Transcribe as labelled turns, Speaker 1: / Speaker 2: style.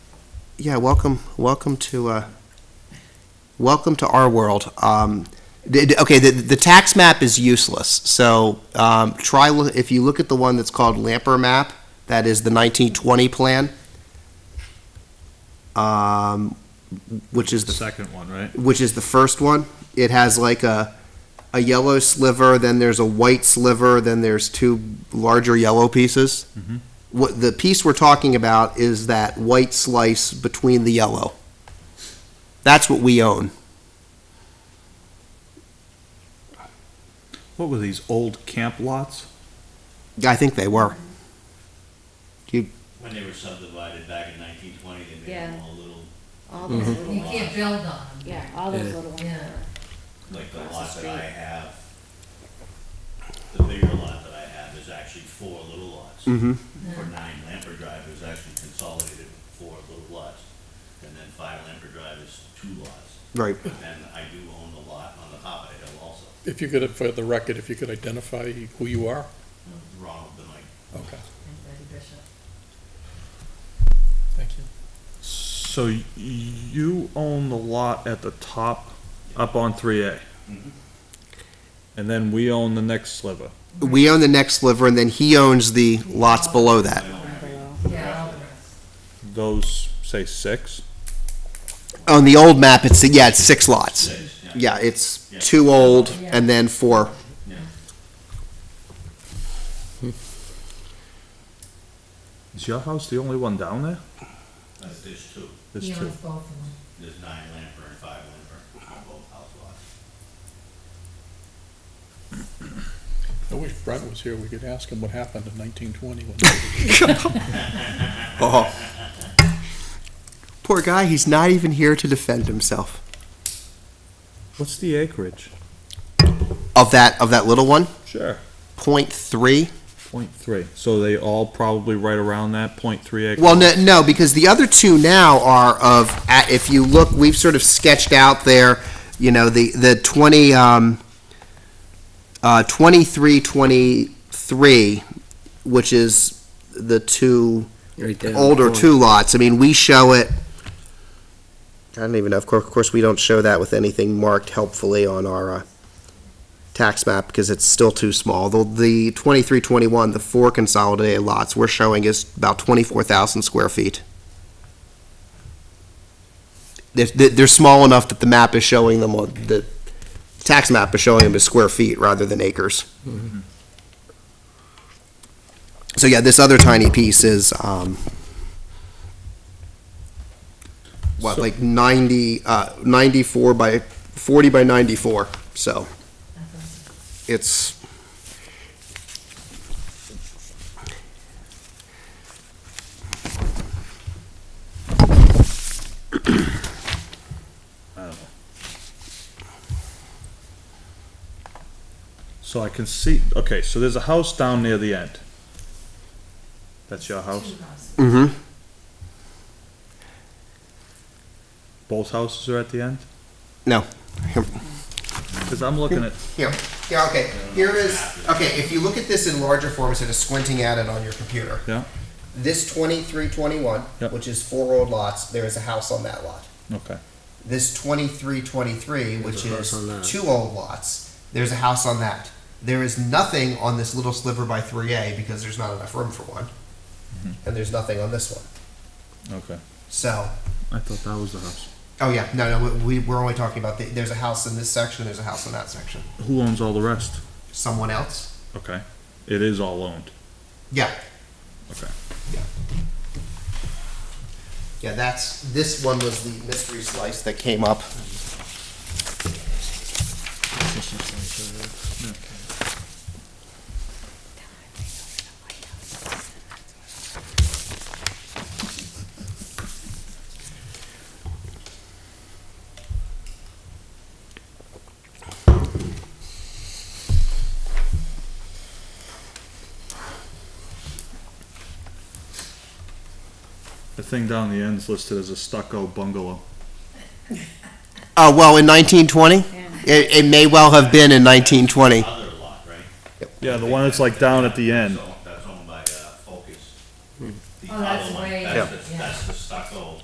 Speaker 1: yeah, welcome, welcome to, uh, welcome to our world. Um, the- the- okay, the, the tax map is useless, so, um, try, loo- if you look at the one that's called Lamper map, that is the nineteen twenty plan. Um, which is
Speaker 2: The
Speaker 1: the
Speaker 2: second one, right?
Speaker 1: which is the first one. It has like a a yellow sliver, then there's a white sliver, then there's two larger yellow pieces.
Speaker 2: Mhm.
Speaker 1: What the piece we're talking about is that white slice between the yellow. That's what we own.
Speaker 2: What were these, old camp lots?
Speaker 1: I think they were.
Speaker 3: When they were subdivided back in nineteen twenty, they made them
Speaker 4: Yeah.
Speaker 3: all little,
Speaker 4: All those little
Speaker 5: You can't
Speaker 4: ones.
Speaker 5: build on them.
Speaker 4: Yeah, all those
Speaker 6: Yeah.
Speaker 4: little ones.
Speaker 5: Yeah.
Speaker 3: like the
Speaker 4: Across the
Speaker 3: lot that
Speaker 4: street.
Speaker 3: I have. The bigger lot that I have is actually four little lots.
Speaker 1: Mm-hmm.
Speaker 3: For nine Lamper Drive, it was actually consolidated with four little lots. And then five Lamper Drive is two lots.
Speaker 1: Right.
Speaker 3: But then I do own the lot on the top of the hill also,
Speaker 6: If you could, for the record, if you could identify who you are?
Speaker 3: Ronald the Mike.
Speaker 6: Okay,
Speaker 5: And Betty Bishop.
Speaker 6: thank you.
Speaker 2: So y- you own the lot at the top, up on three A?
Speaker 3: Mhm.
Speaker 2: And then we own the next sliver?
Speaker 1: We own the next sliver, and then he owns the lots below that.
Speaker 5: Yeah, all the rest.
Speaker 2: Those, say, six?
Speaker 1: On the old map, it's yeah, it's six lots.
Speaker 3: Six,
Speaker 1: Yeah,
Speaker 3: yeah.
Speaker 1: it's
Speaker 3: Yeah.
Speaker 1: two old and then four.
Speaker 2: Is your house the only one down there?
Speaker 3: Uh, There's two,
Speaker 2: There's
Speaker 5: He
Speaker 2: two.
Speaker 5: owns both of them.
Speaker 3: there's nine Lamper and five Lamper, on both house lots.
Speaker 6: I wish Brent was here, we could ask him what happened in nineteen twenty when they
Speaker 1: Oh. Poor guy, he's not even here to defend himself.
Speaker 2: What's the acreage?
Speaker 1: of that of that little one
Speaker 2: Sure.
Speaker 1: point three
Speaker 2: Point three. So they all probably right around that, point three acre?
Speaker 1: well no, no because the other two now are of at- if you look we've sort of sketched out there you know the the 20 um uh 23 23 which is the two
Speaker 6: Right
Speaker 1: older two lots i mean we show it i don't even know of course, of course we don't show that with anything marked helpfully on our uh, tax map because it's still too small. The, the twenty-three, twenty-one, the four consolidated lots we're showing is about twenty-four thousand square feet. They're, they're they're small enough that the map is showing them, on- the tax map is showing them as square feet rather than acres. So yeah, this other tiny piece is, um, what,
Speaker 2: So-
Speaker 1: like ninety, uh, ninety-four by, forty by ninety-four, so it's.
Speaker 2: So I can see, okay, so there's a house down near the end. That's your house?
Speaker 5: Two houses.
Speaker 1: Mm-hmm.
Speaker 2: Both houses are at the end?
Speaker 1: No.
Speaker 2: Because I'm looking at,
Speaker 1: Here. Yeah, okay. Here it is. Okay, if you look at this in larger form instead of squinting at it on your computer.
Speaker 2: Yeah.
Speaker 1: This 2321,
Speaker 2: Yep.
Speaker 1: which is four old lots, there is a house on that lot.
Speaker 2: okay.
Speaker 1: This 2323, which
Speaker 6: There's a house
Speaker 1: is
Speaker 6: on that.
Speaker 1: two old lots, there's a house on that. There is nothing on this little sliver by 3A because there's not enough room for one.
Speaker 2: Mm-hmm.
Speaker 1: And there's nothing on this one.
Speaker 2: Okay.
Speaker 1: So,
Speaker 2: I thought that was the house.
Speaker 1: oh yeah, no, no, we, we're only talking about the, there's a house in this section, there's a house in that section.
Speaker 2: Who owns all the rest?
Speaker 1: Someone else?
Speaker 2: Okay. It is all owned.
Speaker 1: Yeah.
Speaker 2: Okay.
Speaker 1: Yeah. Yeah, that's, this one was the mystery slice that came up.
Speaker 2: The thing down the end's listed as a stucco bungalow.
Speaker 1: Uh, well, in nineteen twenty?
Speaker 4: Yeah.
Speaker 1: It, it may well have been in nineteen twenty.
Speaker 3: Other lot, right?
Speaker 2: Yeah, the one that's like down at the end.
Speaker 3: That's owned by uh, Focus. The
Speaker 5: Oh, that's
Speaker 3: other one